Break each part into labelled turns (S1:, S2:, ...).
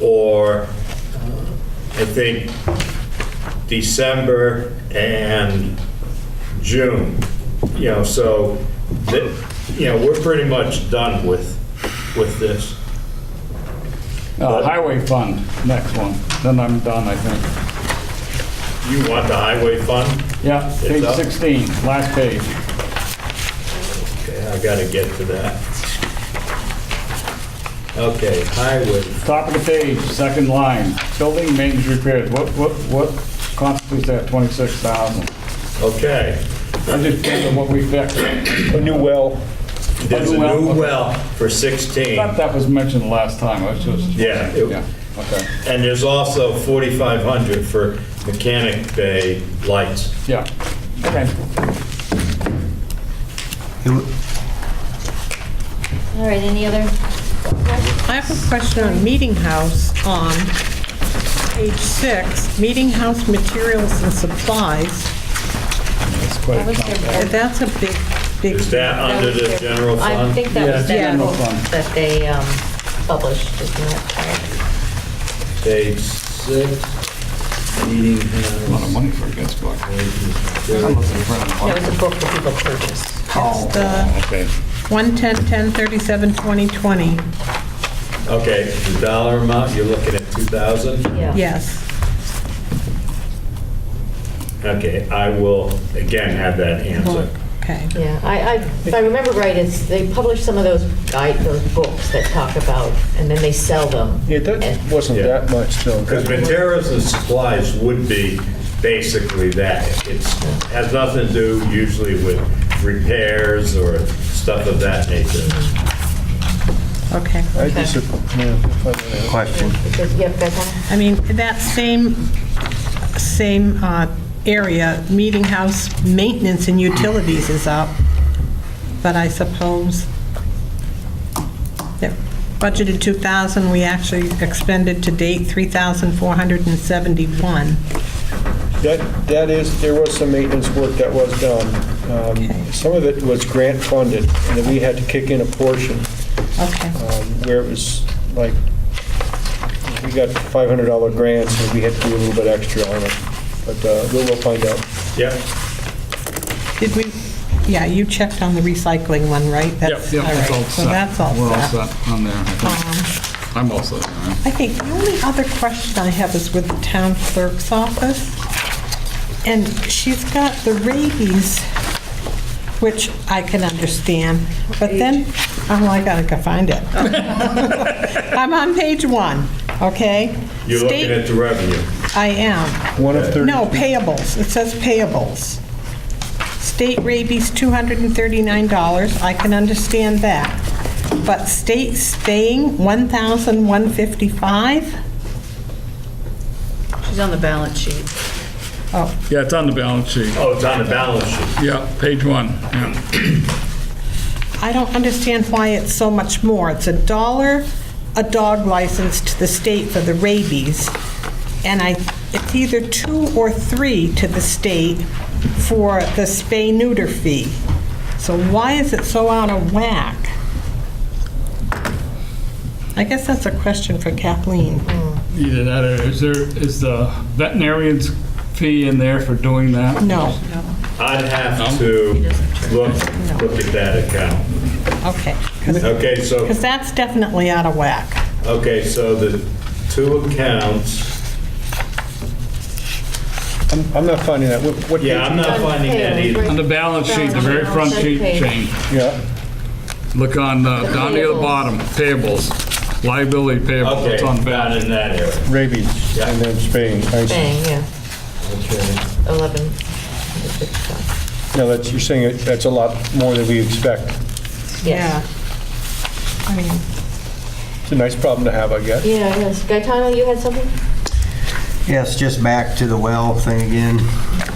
S1: or uh, I think December and June. You know, so, that- you know, we're pretty much done with, with this.
S2: Uh, Highway fund, next one, then I'm done, I think.
S1: You want the highway fund?
S2: Yeah, page
S1: up.
S2: 16, last page.
S1: Okay, I gotta get to that. Okay, highway,
S2: Top of the page, second line, building maintenance repairs, what, what, what constitutes that 26,000?
S1: okay.
S2: I just gave them what we fixed.
S3: A new well.
S1: There's a
S2: well,
S1: new
S2: okay.
S1: well for
S2: I
S1: 16,
S2: thought that was mentioned last time, I was just.
S1: Yeah, it-
S2: Yeah, okay,
S1: and there's also 4,500 for mechanic bay lights.
S2: yeah, okay.
S4: All right, any other?
S5: I have a question on Meeting House on page six, Meeting House materials and supplies.
S2: That's quite a
S4: was
S2: chunk.
S4: there-
S5: That's a big, big.
S1: Is that under the general
S4: I
S1: fund?
S4: think that was
S2: Yeah,
S4: that
S2: general
S4: article
S2: fund.
S4: that they um, published, isn't that
S1: Page six, meeting
S2: A lot of
S1: house.
S2: money for a guest book.
S4: correct? It was a book that people purchased.
S5: It's the
S2: Okay,
S5: 110, 1037, 2020,
S1: Okay, the dollar amount, you're looking at 2,000?
S4: Yeah.
S5: yes.
S1: Okay, I will, again, have that answer.
S5: Okay.
S4: Yeah, I, I, if I remember right, it's, they publish some of those guide, those books that talk about, and then they sell them.
S3: Yeah, that
S4: And-
S3: wasn't that much though.
S1: Because materials and supplies would be basically that. It's, has nothing to do usually with repairs or stuff of that nature.
S5: Okay.
S3: I disagree.
S6: Question.
S4: Because, yeah, Beth,
S5: I mean, that same, same uh, area, Meeting House maintenance and utilities is up, but I suppose that budgeted 2,000, we actually expended to date 3,471.
S3: That, that is, there was some maintenance work that was done. Um, Some of it was grant funded, and then we had to kick in a portion
S5: Okay,
S3: um, where it was like, we got $500 grants, and we had to do a little bit extra on it. But uh, we'll we'll find out.
S1: Yep.
S5: did we, yeah, you checked on the recycling one, right?
S2: yep,
S5: That's-
S2: yep,
S5: all
S2: it's
S5: right,
S2: all
S5: So
S2: set.
S5: that's all
S2: We're all
S5: set.
S2: set on there, I think.
S5: Um,
S2: I'm all set, all right.
S5: I think the only other question I have is with the town clerk's office. And she's got the rabies, which I can understand, but then, oh, I gotta go find it. I'm on page one, okay?
S1: You're looking
S5: State-
S1: at the revenue.
S5: I am.
S3: One of 30.
S5: No, payables. It says payables. State rabies, $239. I can understand that. But state staying, $1,155?
S7: She's on the balance sheet.
S5: Oh,
S2: Yeah, it's on the balance sheet.
S1: Oh, it's on the balance sheet.
S2: Yeah, page one, yeah.
S5: I don't understand why it's so much more. It's a dollar a dog license to the state for the rabies, and I, it's either two or three to the state for the spay-neuter fee. So why is it so out of whack? I guess that's a question for Kathleen.
S2: Either that or is there, is the veterinarian's fee in there for doing that?
S5: No,
S1: I'd have to look, look at that account.
S5: okay.
S1: Okay, so,
S5: Because that's definitely out of whack.
S1: okay, so the two accounts,
S3: I'm- I'm not finding that. What- What page?
S1: yeah, I'm not finding that either.
S2: On the balance sheet, the very front sheet change.
S3: Yeah.
S2: Look on, uh, down near the bottom, payables, liability payables,
S1: Okay,
S2: it's on
S1: not
S2: balance.
S1: in that area.
S3: rabies, and then Spain. I see.
S4: Bang, yeah,
S1: Okay.
S4: 11.
S3: Now, that's, you're saying it- that's a lot more than we expect.
S4: Yes.
S5: I mean,
S3: It's a nice problem to have, I guess.
S4: Yeah, yes. Gaetano, you had something?
S6: Yes, just back to the well thing again.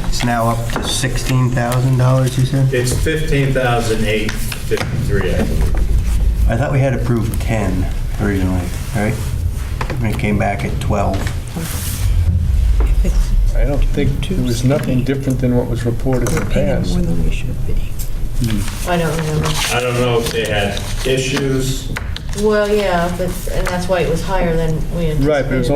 S6: It's now up to $16,000, you said?
S1: It's 15,853, I believe.
S6: I thought we had approved 10 originally, right? And it came back at 12.
S3: I don't think, there was nothing different than what was reported in the past.
S4: I don't remember.
S1: I don't know if they had issues
S4: Well, yeah, but, and that's why it was higher than we anticipated.
S3: Right, but it was